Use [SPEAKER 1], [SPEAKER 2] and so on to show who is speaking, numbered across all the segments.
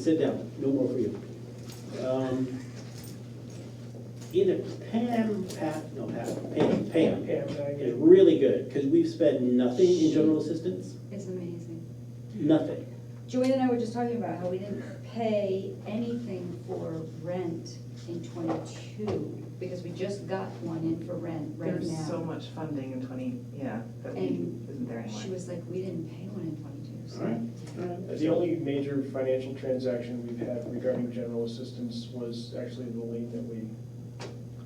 [SPEAKER 1] Sit down, no more for you. Um, Either Pam, Pat, no, Pat, Pam, Pam
[SPEAKER 2] Pam, I
[SPEAKER 1] is
[SPEAKER 2] get it.
[SPEAKER 1] really good, because we've spent nothing in general assistance,
[SPEAKER 3] It's amazing.
[SPEAKER 1] nothing.
[SPEAKER 3] Joanne and I were just talking about how we didn't pay anything for rent in twenty-two, because we just got one in for rent right
[SPEAKER 4] There's so
[SPEAKER 3] now.
[SPEAKER 4] much funding in twenty, yeah, that we,
[SPEAKER 3] And
[SPEAKER 4] isn't there anymore.
[SPEAKER 3] She was like, we didn't pay one in twenty-two,
[SPEAKER 1] All right.
[SPEAKER 3] so.
[SPEAKER 2] The only major financial transaction we've had regarding general assistance was actually the lien that we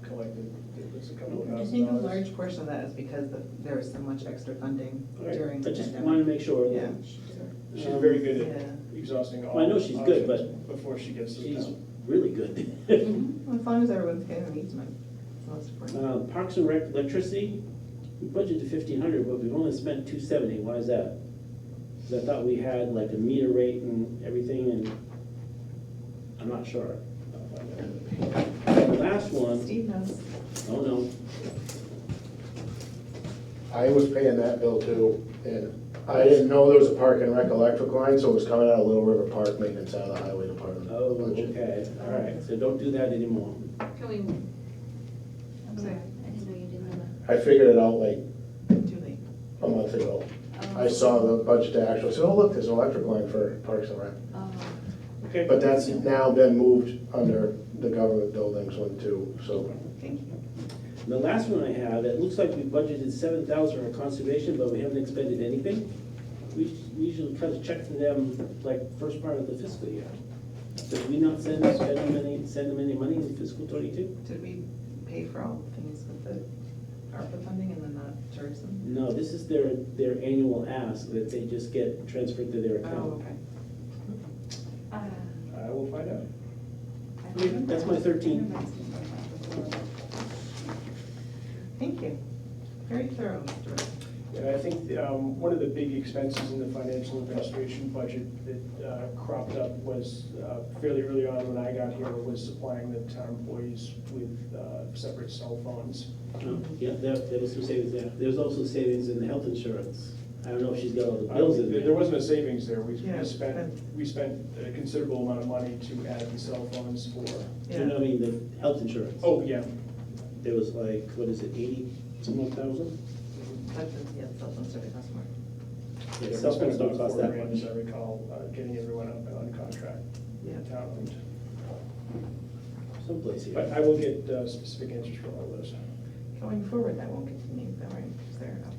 [SPEAKER 2] collected. It was a couple of
[SPEAKER 4] I
[SPEAKER 2] thousand
[SPEAKER 4] think a
[SPEAKER 2] dollars.
[SPEAKER 4] large portion of that is because the- there was so much extra funding
[SPEAKER 1] All right,
[SPEAKER 4] during
[SPEAKER 1] I
[SPEAKER 4] the
[SPEAKER 1] just wanted to
[SPEAKER 4] pandemic.
[SPEAKER 1] make sure
[SPEAKER 4] Yeah.
[SPEAKER 1] that
[SPEAKER 3] She deserved it.
[SPEAKER 2] She's very good at
[SPEAKER 4] Yeah,
[SPEAKER 2] exhausting all
[SPEAKER 1] Well, I know she's good, but
[SPEAKER 2] options Before she gets to
[SPEAKER 1] Um, she's
[SPEAKER 2] town.
[SPEAKER 1] really good.
[SPEAKER 3] Mm-hmm.
[SPEAKER 4] Well, as long as everyone's getting an easement, it's most important.
[SPEAKER 1] Uh, Parks and Rec electricity, we budgeted fifteen hundred, but we've only spent two seventy, why is that? Because I thought we had like a meter rate and everything, and I'm not sure.
[SPEAKER 2] I'll find out.
[SPEAKER 1] The last one,
[SPEAKER 4] Steve knows.
[SPEAKER 1] oh no,
[SPEAKER 5] I was paying that bill too, and I didn't know there was a park and rec electric line, so it was coming out of Little River Park maintenance out of the highway department.
[SPEAKER 1] Oh, okay, all right, so don't do that anymore.
[SPEAKER 6] Can we,
[SPEAKER 3] I'm sorry, I didn't know you didn't know
[SPEAKER 5] I figured it out like
[SPEAKER 4] Too late.
[SPEAKER 5] a month ago.
[SPEAKER 3] that.
[SPEAKER 5] I saw the budget to actual, I said, oh, look, there's an electric line for Parks and Rec.
[SPEAKER 3] Oh,
[SPEAKER 2] Okay.
[SPEAKER 5] But that's now been moved under the government buildings one too, so.
[SPEAKER 4] Thank you.
[SPEAKER 1] And The last one I have, it looks like we budgeted seven thousand for conservation, but we haven't expended anything. We us- we usually cut a check from them like first part of the fiscal year. Did we not send, spend them any, send them any money in fiscal twenty-two?
[SPEAKER 4] Did we pay for all the things with the ARPA funding and then not tourism?
[SPEAKER 1] No, this is their, their annual ask that they just get transferred to their
[SPEAKER 4] Oh,
[SPEAKER 1] account.
[SPEAKER 4] okay.
[SPEAKER 3] uh, I
[SPEAKER 2] I will find out.
[SPEAKER 3] remember-
[SPEAKER 1] That's my 13.
[SPEAKER 3] I remember asking about that before.
[SPEAKER 4] Thank you. Very thorough, Mr. Rose.
[SPEAKER 2] And I think um, one of the big expenses in the financial administration budget that uh, cropped up was uh, fairly early on when I got here was supplying the town employees with uh, separate cell phones.
[SPEAKER 1] Oh, Yeah, there, there was some savings there. There was also savings in the health insurance. I don't know if she's got all the
[SPEAKER 2] I don't
[SPEAKER 1] bills in
[SPEAKER 2] think-
[SPEAKER 1] there.
[SPEAKER 2] There wasn't a savings there. We
[SPEAKER 4] Yeah.
[SPEAKER 2] we spent, we spent a considerable amount of money to add the cell phones for,
[SPEAKER 1] You know, I mean, the health insurance.
[SPEAKER 2] oh, yeah.
[SPEAKER 1] There was like, what is it, eighty, some odd thousand?
[SPEAKER 4] That's, yeah, cell phone service, that's more.
[SPEAKER 2] Yeah, we
[SPEAKER 1] Cell phones
[SPEAKER 2] spent
[SPEAKER 1] don't
[SPEAKER 2] about
[SPEAKER 1] cost
[SPEAKER 2] four
[SPEAKER 1] that
[SPEAKER 2] grand,
[SPEAKER 1] much.
[SPEAKER 2] as I recall, uh, getting everyone up on contract,
[SPEAKER 4] Yeah.
[SPEAKER 2] town.
[SPEAKER 1] Someplace
[SPEAKER 2] But
[SPEAKER 1] here.
[SPEAKER 2] I will get uh, specific answers from all those.
[SPEAKER 4] Going forward, that won't continue, though, right? Is there enough?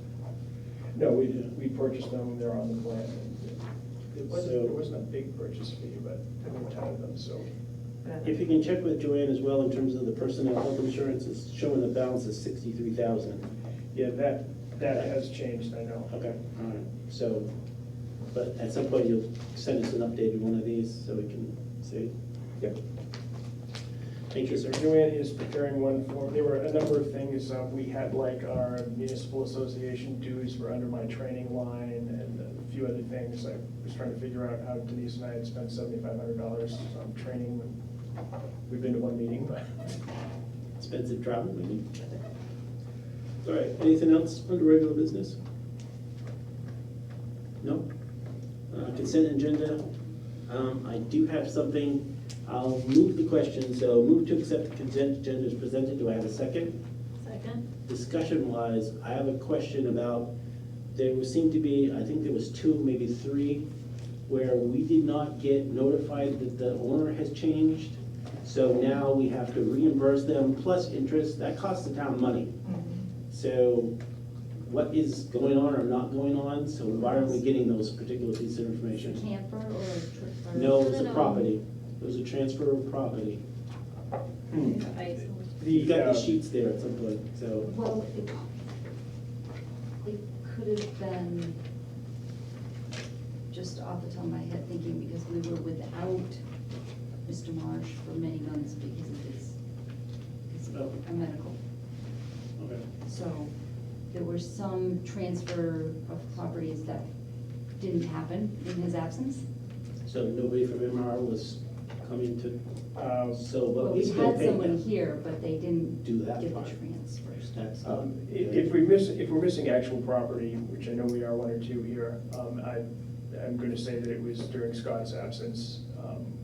[SPEAKER 2] No, we, we purchased them, they're on the plan. and It wasn't,
[SPEAKER 1] So-
[SPEAKER 2] it wasn't a big purchase fee, but there were a ton of them, so.
[SPEAKER 1] If you can check with Joanne as well in terms of the personnel health insurance, it's showing the balance is sixty-three thousand.
[SPEAKER 2] Yeah, Uh, that, that has changed, I know.
[SPEAKER 1] Okay, all right, so, but at some point you'll send us an updated one of these so we can see.
[SPEAKER 2] Yep.
[SPEAKER 1] Thank you, sir.
[SPEAKER 2] Joanne is preparing one for, there were a number of things, uh, we had like our municipal association dues were under my training line and a few other things. I was trying to figure out how Denise and I had spent seventy-five hundred dollars on training when, we've been to one meeting, but.
[SPEAKER 1] Expensive travel, maybe. All right, anything else under regular business? No? Uh, Consent agenda, Um, I do have something, I'll move the question, so move to accept the consent agenda as presented, do I have a second?
[SPEAKER 6] second,
[SPEAKER 1] Discussion wise, I have a question about, there seemed to be, I think there was two, maybe three, where we did not get notified that the owner has changed, so now we have to reimburse them plus interest, that costs the town money.
[SPEAKER 4] Mm-hmm.
[SPEAKER 1] So what is going on or not going on, so why aren't we getting those particular pieces of
[SPEAKER 3] Is it a
[SPEAKER 1] information?
[SPEAKER 3] camper or a trip? or-
[SPEAKER 1] No, it
[SPEAKER 6] No,
[SPEAKER 1] was
[SPEAKER 6] no,
[SPEAKER 1] a
[SPEAKER 6] no.
[SPEAKER 1] property, it was a transfer of property. Hmm.
[SPEAKER 6] I,
[SPEAKER 1] You got
[SPEAKER 2] uh,
[SPEAKER 1] the sheets there at some point, so,
[SPEAKER 3] Well, it, it could have been, just off the top of my head thinking, because we were without Mr. Marsh for many months because of his, his
[SPEAKER 1] Oh.
[SPEAKER 3] a medical.
[SPEAKER 1] okay.
[SPEAKER 3] So there were some transfer of properties that didn't happen in his absence.
[SPEAKER 1] So nobody from MR was coming to,
[SPEAKER 2] uh,
[SPEAKER 1] so,
[SPEAKER 3] But
[SPEAKER 1] but we
[SPEAKER 3] we
[SPEAKER 1] still
[SPEAKER 3] had
[SPEAKER 1] paid
[SPEAKER 3] someone
[SPEAKER 1] them.
[SPEAKER 3] here, but they didn't
[SPEAKER 1] Do that
[SPEAKER 3] get the
[SPEAKER 1] part.
[SPEAKER 3] transfers.
[SPEAKER 1] That's not
[SPEAKER 2] Um, i-
[SPEAKER 1] good.
[SPEAKER 2] If we miss, if we're missing actual property, which I know we are one or two here, um, I, I'm going to say that it was during Scott's absence. um,